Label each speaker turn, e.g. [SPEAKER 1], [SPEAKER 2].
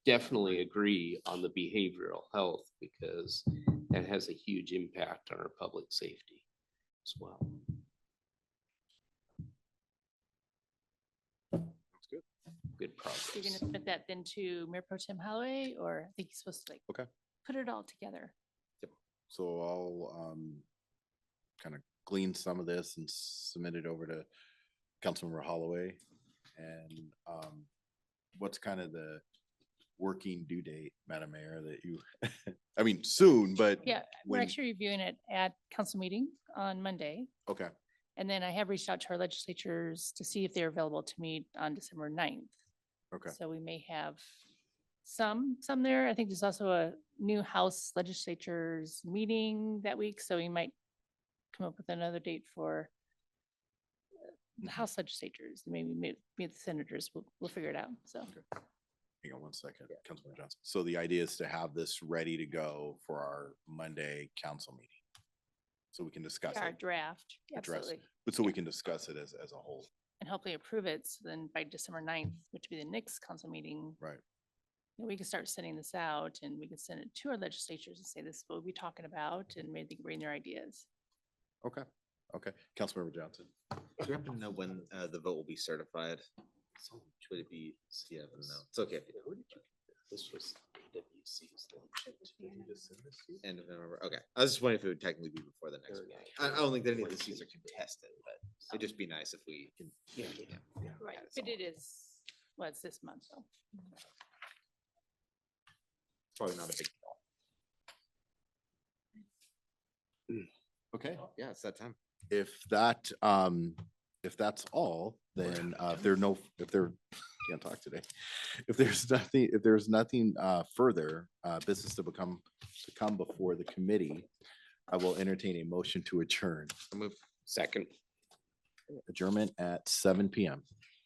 [SPEAKER 1] definitely agree on the behavioral health because that has a huge impact on our public safety as well.
[SPEAKER 2] good.
[SPEAKER 1] Good progress.
[SPEAKER 3] You're gonna put that then to Mayor Pro Tem Holloway, or I think he's supposed to like.
[SPEAKER 2] Okay.
[SPEAKER 3] Put it all together.
[SPEAKER 2] So I'll um kind of glean some of this and submit it over to Councilmember Holloway. And um what's kind of the working due date, Madam Mayor, that you, I mean, soon, but.
[SPEAKER 3] Yeah, we're
[SPEAKER 2] when-
[SPEAKER 3] actually reviewing it at council meeting on Monday.
[SPEAKER 2] Okay,
[SPEAKER 3] And then I have reached out to our legislatures to see if they're available to meet on December 9th.
[SPEAKER 2] okay,
[SPEAKER 3] So we may have some, some there. I think there's also a new House legislatures meeting that week, so we might come up with another date for uh,
[SPEAKER 2] Mhm.
[SPEAKER 3] the House legislatures, maybe meet, meet the senators. We'll, we'll figure it out, so.
[SPEAKER 2] hang on one second, Councilman Johnson. So the idea is to have this ready to go for our Monday council meeting. So we can discuss
[SPEAKER 3] Our
[SPEAKER 2] it,
[SPEAKER 3] draft,
[SPEAKER 2] Address.
[SPEAKER 3] absolutely.
[SPEAKER 2] but so we can discuss it as as a whole,
[SPEAKER 3] And hopefully approve it, so then by December 9th, which would be the next council meeting,
[SPEAKER 2] right?
[SPEAKER 3] then we can start sending this out and we can send it to our legislatures and say, this is what we'll be talking about, and maybe they can bring their ideas.
[SPEAKER 2] Okay, okay. Councilmember Johnson.
[SPEAKER 4] Do you happen to know when uh, the vote will be certified? Would it be, yeah, but no, it's okay. if you don't.
[SPEAKER 1] This was AWC's lunch.
[SPEAKER 4] End of November, okay. I was just wondering if it would technically be before the next meeting. I, I don't think that any of the seats are contested, but it'd just be nice if we.
[SPEAKER 3] Right,
[SPEAKER 4] Yeah, it's
[SPEAKER 3] but
[SPEAKER 4] all-
[SPEAKER 3] it is, well, it's this month, so.
[SPEAKER 4] Probably not a big,
[SPEAKER 2] Okay.
[SPEAKER 4] yeah, it's that time.
[SPEAKER 2] If that, um, if that's all, then, uh, if there are no, if there, can't talk today. If there's nothing, if there's nothing, uh, further, uh, business to become, to come before the committee, I will entertain a motion to adjourn,
[SPEAKER 4] I'll move.
[SPEAKER 1] Second.
[SPEAKER 2] adjournment at seven PM.